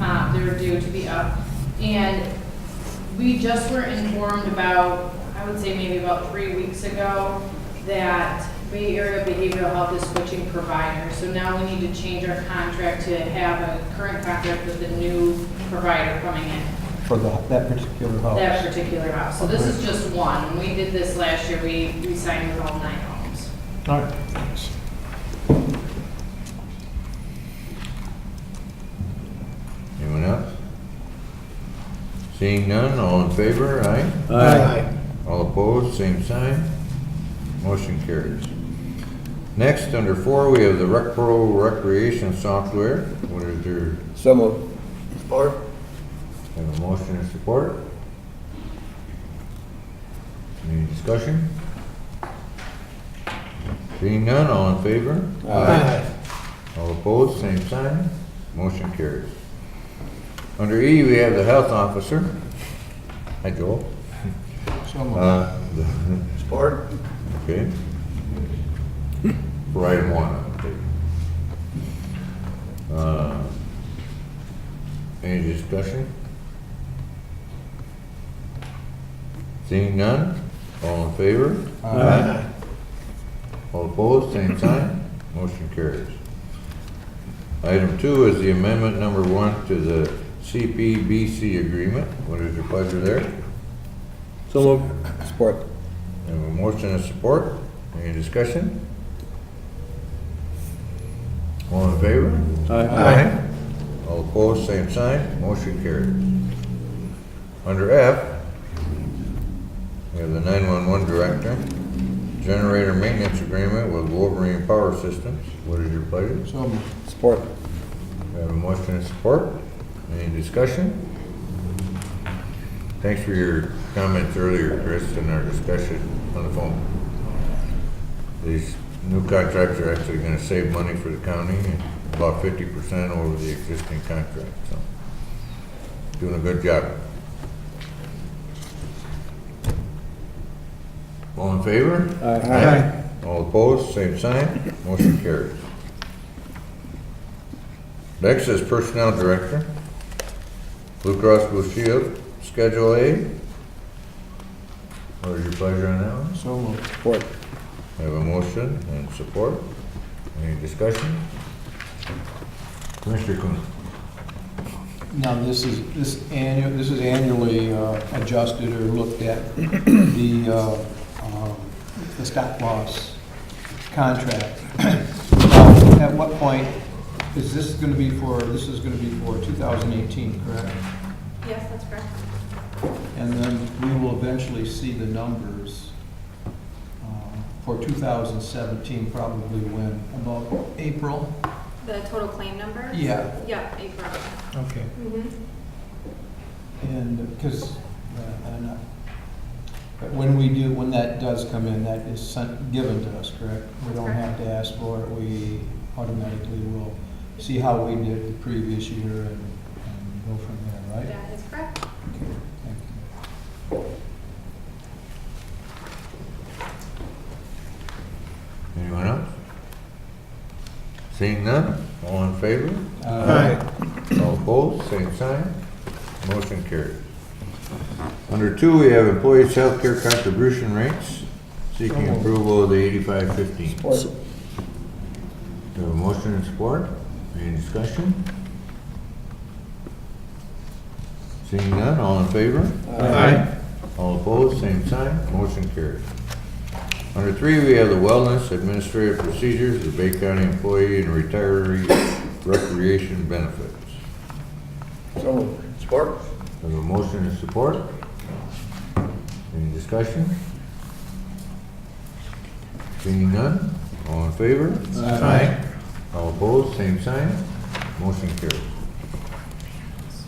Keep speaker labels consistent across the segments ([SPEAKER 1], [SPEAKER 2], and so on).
[SPEAKER 1] uh, to be up. And we just were informed about, I would say maybe about three weeks ago, that Bay Area Behavioral Health is switching providers. So now we need to change our contract to have a current contract with the new provider coming in
[SPEAKER 2] for the, that particular
[SPEAKER 1] that
[SPEAKER 2] house.
[SPEAKER 1] particular house. So this is just one. When we did this last year, we, we signed with all nine homes.
[SPEAKER 2] All right, thanks.
[SPEAKER 3] Anyone else? Seeing none, all in favor, aye?
[SPEAKER 2] Aye.
[SPEAKER 3] All opposed, same sign. Motion carries. Next, under four, we have the Rec Pro Recreation Software. What is your,
[SPEAKER 4] So moved. Support?
[SPEAKER 3] have a motion and support? Any discussion? Seeing none, all in favor? All opposed, same sign. Motion carries. Under E, we have the health officer. Hi, Joel.
[SPEAKER 2] So moved.
[SPEAKER 3] Uh,
[SPEAKER 4] Support?
[SPEAKER 3] Okay. For item one, okay. Uh, Any discussion? Seeing none, all in favor? Aye. All opposed, same sign, motion carries. Item two is the amendment number one to the CPBC agreement. What is your pleasure there?
[SPEAKER 4] So moved. Support?
[SPEAKER 3] I Have a motion and support. Any discussion? All in favor? All opposed, same sign. Motion carries. Under F, we have the 911 director, generator maintenance agreement with Wolverine Power Systems. What is your pleasure?
[SPEAKER 2] So moved.
[SPEAKER 4] Support?
[SPEAKER 3] We have a motion and support. Any discussion? Thanks for your comments earlier, Chris, in our discussion on the phone. These new contracts are actually gonna save money for the county, and about fifty percent over the existing contract, so. Doing a good job. All in favor?
[SPEAKER 2] Aye.
[SPEAKER 3] All opposed, same sign, motion carries. Next is Personnel Director, Blue Cross Blue Shield, Schedule A. What is your pleasure on that one?
[SPEAKER 2] So moved.
[SPEAKER 4] Support?
[SPEAKER 3] I have a motion and support. Any discussion? Commissioner Coon.
[SPEAKER 2] Now, this is, this annual, this is annually uh, adjusted or looked at, the, uh, um, the stop loss contract. Now, At what point is this going to be for, this is going to be for 2018, correct?
[SPEAKER 5] Yes, that's correct.
[SPEAKER 2] And then we will eventually see the numbers um, for 2017, probably when, about April?
[SPEAKER 5] The total claim number?
[SPEAKER 2] Yeah.
[SPEAKER 5] Yeah, April.
[SPEAKER 2] Okay.
[SPEAKER 5] Mhm.
[SPEAKER 2] And, because, but uh, when we do, when that does come in, that is sent, given to us, correct? We don't have to ask for it, we automatically will see how we did the previous year and and go from there, right?
[SPEAKER 5] That is correct.
[SPEAKER 2] Okay, thank you.
[SPEAKER 3] Anyone else? Seeing none, all in favor?
[SPEAKER 2] Uh,
[SPEAKER 3] All opposed, same sign. Motion carries. Under two, we have employees' healthcare contribution rates, seeking approval of the eighty-five fifteen.
[SPEAKER 4] Support?
[SPEAKER 3] Do we have a motion and support? Any discussion? Seeing none, all in favor?
[SPEAKER 4] Aye.
[SPEAKER 3] All opposed, same sign. Motion carries. Under three, we have the wellness administrative procedures, the Bay County employee and retiree recreation benefits.
[SPEAKER 4] So moved. Support?
[SPEAKER 3] We have a motion and support. Any discussion? Seeing none, all in favor? Aye. All opposed, same sign. Motion carries.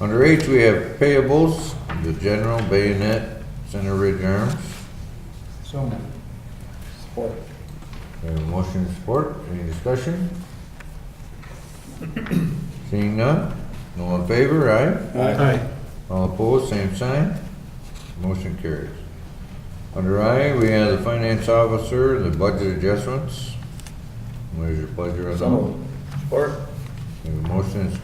[SPEAKER 3] Under H, we have payables, the general bayonet, center ridge arms.
[SPEAKER 2] So moved.
[SPEAKER 4] Support?
[SPEAKER 3] We have a motion and support. Any discussion? Seeing none, all in favor, aye?
[SPEAKER 4] Aye.
[SPEAKER 3] All opposed, same sign. Motion carries. Under I, we have the finance officer, the budget adjustments. What is your pleasure on that?
[SPEAKER 4] So moved. Support?
[SPEAKER 3] We have a motion and support